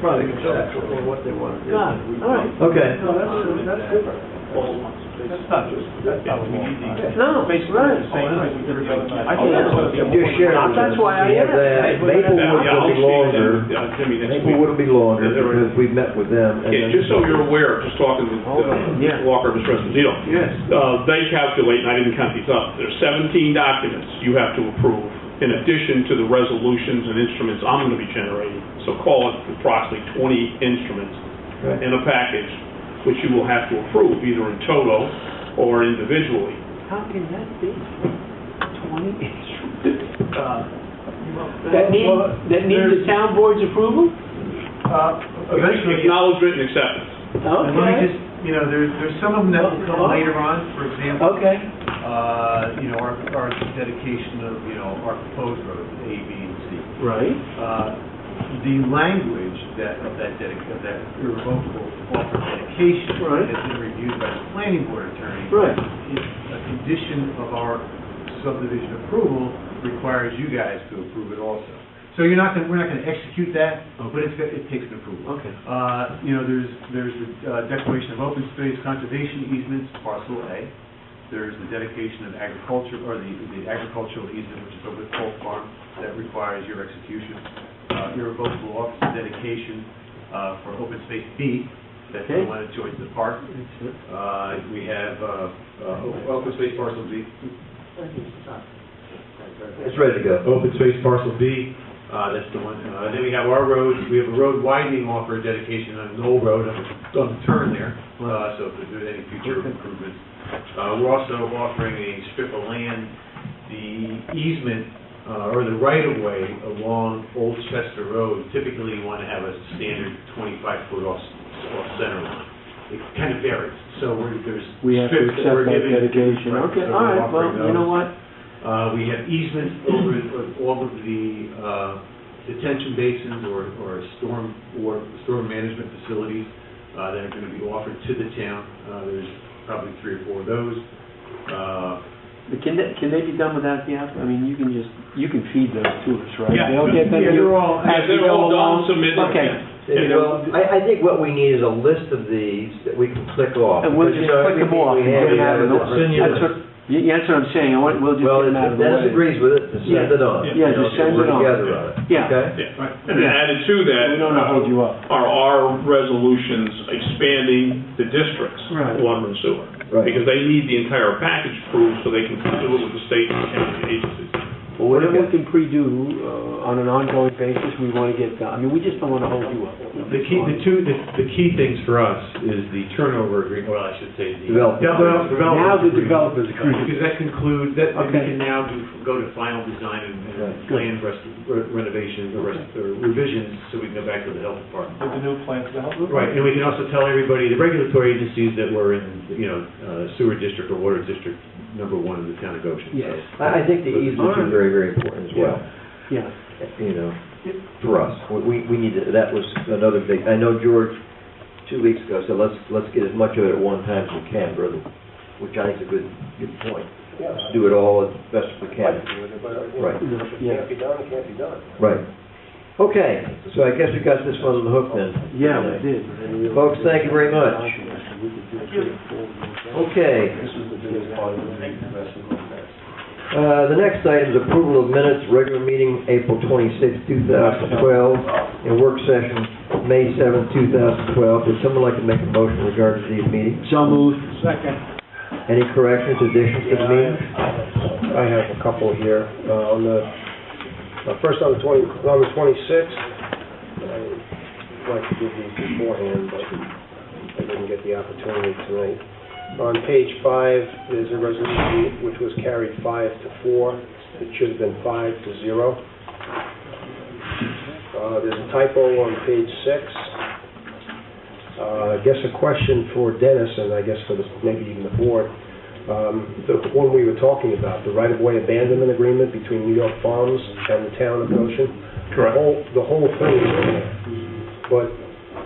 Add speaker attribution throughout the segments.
Speaker 1: product is that, or what they want. to do.
Speaker 2: Ah, all right.
Speaker 1: Okay.
Speaker 3: No, that's, that's different.
Speaker 4: That's not just, that's not what we need.
Speaker 2: No, right.
Speaker 4: Basically, the same thing we did the other night.
Speaker 1: I think that's what- Just share with us.
Speaker 2: That's why I
Speaker 1: Have that.
Speaker 2: asked.
Speaker 1: Maple Woods will be
Speaker 4: Yeah, I'll see you then,
Speaker 1: longer,
Speaker 4: uh, Jimmy, next
Speaker 1: Maple
Speaker 4: week.
Speaker 1: Wood will be longer,
Speaker 4: Yeah, they're-
Speaker 1: because we've met with them. and
Speaker 4: Yeah,
Speaker 1: then-
Speaker 4: just so you're aware, just talking to uh,
Speaker 2: Yeah.
Speaker 4: Mr. Walker, Mr. Esposito.
Speaker 3: Yes.
Speaker 4: Uh, They calculate, and I didn't count these up, there's 17 documents you have to approve in addition to the resolutions and instruments I'm going to be generating. So call it approximately 20 instruments
Speaker 1: Right.
Speaker 4: in a package, which you will have to approve either in toto or individually.
Speaker 2: How can that be? Twenty instruments?
Speaker 3: Well,
Speaker 2: That need,
Speaker 3: well,
Speaker 2: that need the
Speaker 3: there's-
Speaker 2: town board's approval?
Speaker 3: Uh, Eventually,
Speaker 4: Acknowledgement and acceptance.
Speaker 3: and let me
Speaker 2: Okay,
Speaker 3: just, you know, there's, there's some of them that will come later on, for example,
Speaker 2: okay.
Speaker 3: uh, you know, our, our dedication of, you know, our proposed roads, A, B, and C.
Speaker 2: Right.
Speaker 3: Uh, The language that, of that dedic, of that irrevocable offer of dedication
Speaker 2: Right.
Speaker 3: has been reviewed by the planning board attorney.
Speaker 2: Right.
Speaker 3: It's A condition of our subdivision approval requires you guys to approve it also. So you're not gonna, we're not gonna execute that, but it's, got- it takes an approval.
Speaker 2: Okay.
Speaker 3: Uh, You know, there's, there's the uh, declaration of open space conservation easements, parcel A. There's the dedication of agriculture, or the the agricultural easement, which is over the Polk Farm, that requires your execution. Uh, Irrevocable office of dedication uh, for open space B, that's the
Speaker 2: Okay.
Speaker 3: one that joins the park. Uh, We have uh, uh, open space parcel B,
Speaker 1: It's ready to go.
Speaker 3: open space parcel B, uh, that's the one. Uh, Then we have our roads, we have a road widening offer of dedication on Knoll Road, on the- on the turn there, uh, so if there's any future improvements. Uh, We're also offering a strip of land, the easement, uh, or the right-of-way along Old Chester Road. Typically, you want to have a standard 25-foot off, off-center line. It kind of varies, so we're- there's
Speaker 2: We have to
Speaker 3: strips that we're
Speaker 2: accept that
Speaker 3: giving.
Speaker 2: dedication.
Speaker 3: Right,
Speaker 2: Okay,
Speaker 3: so
Speaker 2: all
Speaker 3: we're
Speaker 2: right, well,
Speaker 3: offering
Speaker 2: you know
Speaker 3: those.
Speaker 2: what?
Speaker 3: Uh, we have easements over uh, all of the uh, detention basins or, or storm, or storm management facilities uh, that are going to be offered to the town. Uh, There's probably three or four of those. Uh,
Speaker 2: But can that, can they be done without the, app- I mean, you can just, you can feed those to us, right?
Speaker 4: Yeah.
Speaker 2: They'll get them,
Speaker 3: Yeah,
Speaker 2: you-
Speaker 3: they're all-
Speaker 2: as
Speaker 4: Yeah, they're
Speaker 2: we go
Speaker 4: all done,
Speaker 2: along?
Speaker 4: submitted.
Speaker 2: Okay,
Speaker 4: You know,
Speaker 1: Well, I, I think what we need is a list of these that we can click off.
Speaker 2: and we'll
Speaker 1: because, you
Speaker 2: just
Speaker 1: know,
Speaker 2: click
Speaker 1: everything
Speaker 2: them off
Speaker 1: we
Speaker 2: and
Speaker 1: have,
Speaker 2: get them
Speaker 1: we
Speaker 2: out of
Speaker 1: have
Speaker 2: the
Speaker 1: a
Speaker 2: way.
Speaker 1: senior
Speaker 2: That's what,
Speaker 1: list.
Speaker 2: y- yeah, that's what I'm saying, I want, we'll just
Speaker 1: Well,
Speaker 2: get
Speaker 1: if
Speaker 2: them out of the way.
Speaker 1: Dennis agrees with it, just send
Speaker 2: Yeah.
Speaker 1: it on.
Speaker 2: Yeah,
Speaker 1: you know,
Speaker 2: just send
Speaker 1: we're
Speaker 2: it on.
Speaker 1: together on it,
Speaker 2: Yeah.
Speaker 1: okay?
Speaker 4: Yeah. And added to that.
Speaker 2: We don't wanna hold you up.
Speaker 4: Are our resolutions expanding the districts?
Speaker 2: Right.
Speaker 4: Water and sewer.
Speaker 1: Right.
Speaker 4: Because they need the entire package approved so they can do it with the state and county agencies.
Speaker 1: Well, what do
Speaker 2: Whatever
Speaker 1: you
Speaker 2: we can pre-do, uh, on an ongoing basis, we wanna get done, I mean, we just don't wanna hold you up.
Speaker 3: The key, the two, the the key things for us is the turnover agreement, well, I should say the.
Speaker 1: Development.
Speaker 3: Develop- development
Speaker 2: Now the
Speaker 3: agreement.
Speaker 2: developers agree.
Speaker 3: Because that concludes, that, we
Speaker 2: Okay.
Speaker 3: can now do, go to final design and and
Speaker 1: Right.
Speaker 3: plan rest- renovation, or rest- or revisions, so we can go back to the health department.
Speaker 4: the new plans to help
Speaker 3: Right, and we can also tell everybody, the regulatory agencies that were in, you know, uh, sewer district or water district, number one in the town of Goshen. so-
Speaker 2: Yes.
Speaker 1: I, I think the easements are very, very important as well,
Speaker 2: Yeah,
Speaker 1: you know, for us. We- We, we need, to- that was another big, I know George, two weeks ago, said, let's, let's get as much of it at one time as we can, brother, which I think is a good, good point. Let's Do it all as best we can. Right.
Speaker 2: yeah,
Speaker 1: Right. Okay, so I guess we got this one on the hook then.
Speaker 2: yeah, we did.
Speaker 1: Folks, thank you very much. Okay. Uh, The next item is approval of minutes, regular meeting, April 26, 2012, and work session, May 7, 2012. Would someone like to make a motion regarding these meetings?
Speaker 2: So moved.
Speaker 3: Second.
Speaker 1: Any corrections, additions to the meeting?
Speaker 5: I have a couple here. Uh, On the, uh, first on the 20, on the 26th, I'd like to give these beforehand, but I didn't get the opportunity tonight. On page five, there's a resolution which was carried five to four. It should have been five to zero. Uh, There's a typo on page six. Uh, I guess a question for Dennis, and I guess for the, maybe even the board um, the one we were talking about, the right-of-way abandonment agreement between New York Farms and the town of Goshen. The
Speaker 4: Correct.
Speaker 5: whole, the whole thing is in there, but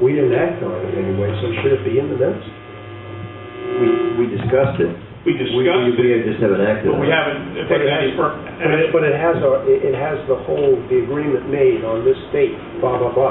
Speaker 5: we didn't act on it anyway, so should it be in the minutes?
Speaker 1: We we discussed it.
Speaker 4: We
Speaker 1: We we-
Speaker 4: discussed
Speaker 1: we
Speaker 4: it,
Speaker 1: just haven't acted
Speaker 4: but
Speaker 1: on
Speaker 4: we
Speaker 1: it.
Speaker 4: haven't, in
Speaker 5: But
Speaker 4: fact,
Speaker 5: it
Speaker 4: any
Speaker 5: has-
Speaker 4: per-
Speaker 5: But it- but it has, a- it it has the whole, the agreement made on this date, blah, blah, blah.